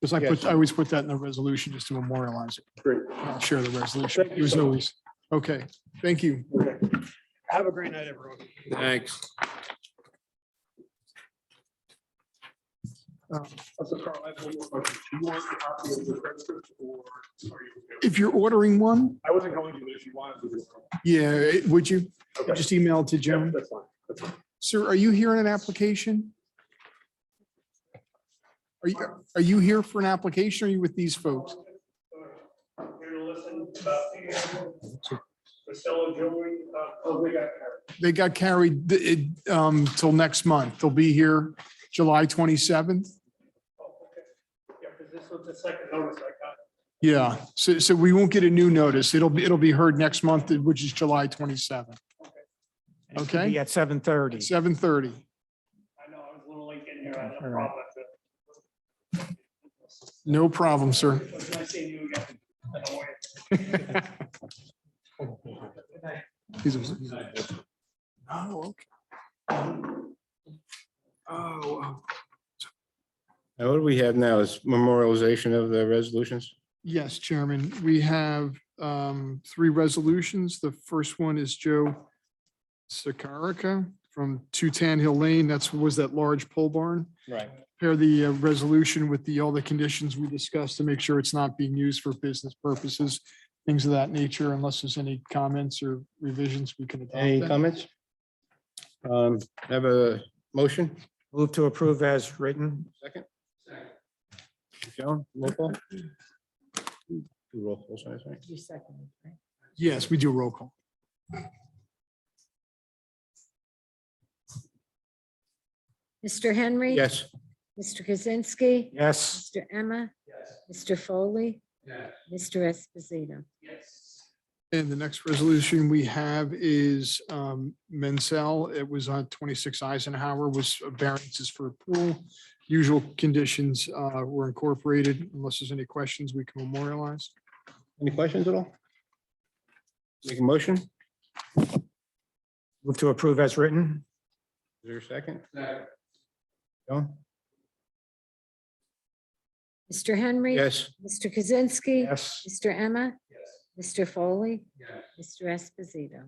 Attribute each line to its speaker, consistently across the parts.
Speaker 1: Because I
Speaker 2: Yes.
Speaker 1: put, I always put that in the resolution just to memorialize it.
Speaker 2: Great.
Speaker 1: I'll Share the resolution.
Speaker 2: Thank you
Speaker 1: It was
Speaker 2: so much.
Speaker 1: always, okay, thank you.
Speaker 2: Okay. Have a great night, everyone.
Speaker 3: Thanks.
Speaker 1: Um,
Speaker 2: Also, Carl, I have one more question. Do you want a copy of the transcript or are you? okay?
Speaker 1: If you're ordering one,
Speaker 2: I wasn't going to, but if you wanted to. just-
Speaker 1: yeah, it- would you
Speaker 2: Okay.
Speaker 1: just email it to
Speaker 2: Yeah,
Speaker 1: Jim?
Speaker 2: That's fine. That's fine.
Speaker 1: Sir, are you here in an application? Are you, are you here for an application? or Are you with these folks?
Speaker 2: Here to listen about the Marcelo Joey, oh, we got.
Speaker 1: They got carried th- it, um, till next month. They'll be here July 27th.
Speaker 2: Oh, Yeah, because this was the second notice I got.
Speaker 1: Yeah, so, so we won't get a new notice. It'll be, it'll be heard next month, which is July 27th,
Speaker 4: and it should
Speaker 1: Okay.
Speaker 4: Be at seven thirty.
Speaker 1: 7:30.
Speaker 2: I know, I was a little late getting here. I had a
Speaker 4: All right.
Speaker 2: problem with it.
Speaker 1: No problem, sir.
Speaker 2: It was nice seeing you again. I don't know where-
Speaker 1: He's- Oh, okay. Oh, wow.
Speaker 3: Now, what do we have now is memorialization of the resolutions?
Speaker 1: Yes, Chairman, we have um, three resolutions. The first one is Joe Sakarica from Two Tan Hill Lane. That's, was that large pole barn?
Speaker 3: Right.
Speaker 1: Pair the uh, resolution with the, all the conditions we discussed to make sure it's not being used for business purposes, things of that nature, unless there's any comments or revisions we can. adopt
Speaker 3: Any
Speaker 1: them.
Speaker 3: comments? Um, have a motion,
Speaker 4: Move to approve as written.
Speaker 3: second? Joan, roll call? Two roll calls, I think.
Speaker 5: You second, right?
Speaker 1: Yes, we do a roll call.
Speaker 5: Mr. Henry?
Speaker 3: Yes,
Speaker 5: Mr. Kaczynski?
Speaker 4: Yes.
Speaker 5: Mr. Emma? Yes. Mr. Foley? Yes. Mr. Esposito?
Speaker 1: And the next resolution we have is um, Mansell. It was on 26 Eisenhower was variances for a pool. Usual conditions uh, were incorporated. Unless there's any questions, we can memorialize.
Speaker 3: any questions at all? Make a motion, is
Speaker 4: Move to approve as written.
Speaker 3: there a second? Joan?
Speaker 5: Mr. Henry?
Speaker 3: Yes,
Speaker 5: Mr. Kaczynski?
Speaker 4: Yes.
Speaker 5: Mr. Emma? Yes. Mr. Foley? Yes. Mr. Esposito?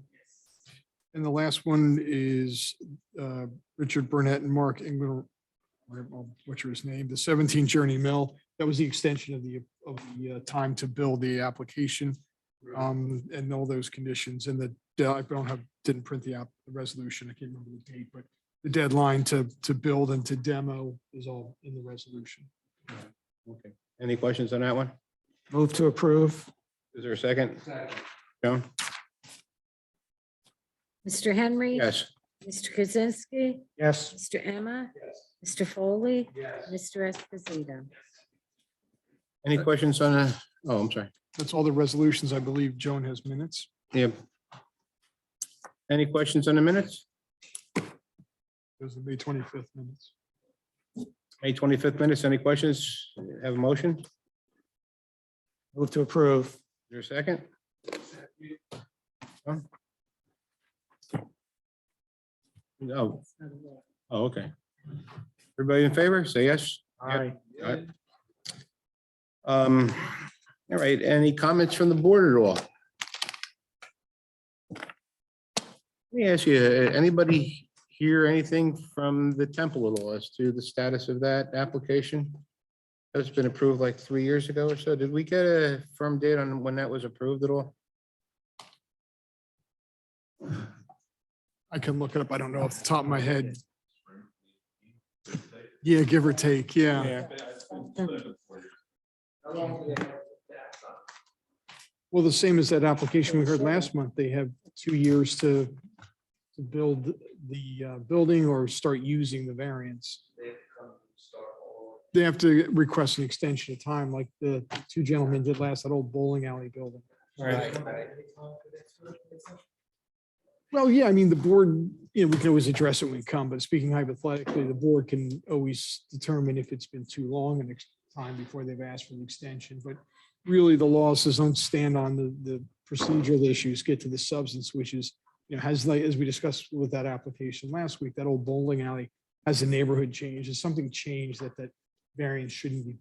Speaker 1: And the last one is uh, Richard Burnett and Mark Engler. I'll Butcher his name, the 17 Journey Mill. That was the extension of the, of the uh, time to build the application. um, And all those conditions and the, I don't have, didn't print the app, the resolution. I can't remember the date, but the deadline to, to build and to demo is all in the resolution.
Speaker 3: okay. Any questions on that one?
Speaker 4: Move to approve.
Speaker 3: Is there a second? Joan?
Speaker 5: Mr. Henry?
Speaker 3: Yes,
Speaker 5: Mr. Kaczynski?
Speaker 4: Yes.
Speaker 5: Mr. Emma? Yes. Mr. Foley?
Speaker 2: Yes.
Speaker 5: Mr. Esposito?
Speaker 3: any questions on, the- oh, I'm sorry.
Speaker 1: That's all the resolutions. I believe Joan has minutes.
Speaker 3: Yep. Any questions on the minutes?
Speaker 1: Those are the May 25th minutes.
Speaker 3: May twenty-fifth minutes, any questions? Have a motion? Is
Speaker 4: Move to approve.
Speaker 3: There a second? Huh? No, oh, okay. Everybody in favor, say yes.
Speaker 4: Aye.
Speaker 3: Um, all right, any comments from the board at all? Let me ask you, uh, anybody hear anything from the temple at all as to the status of that application? That's been approved like three years ago or so. Did we get a firm date on when that was approved at all?
Speaker 1: I can look it up. I don't know off the top of my head. Yeah, give or take. Yeah. Well, the same as that application we heard last month. They have two years to to build the uh, building or start using the variance. They have to request an extension of time like the two gentlemen did last, that old bowling alley building.
Speaker 4: Right.
Speaker 1: Well, yeah, I mean, the board, you know, we can always address it when we come, but speaking hypothetically, the board can always determine if it's been too long an ex- time before they've asked for an extension, but really the law says don't stand on the, the procedural issues, get to the substance, which is, you know, has like, as we discussed with that application last week, that old bowling alley, has the neighborhood changed? Has something changed that that variance shouldn't be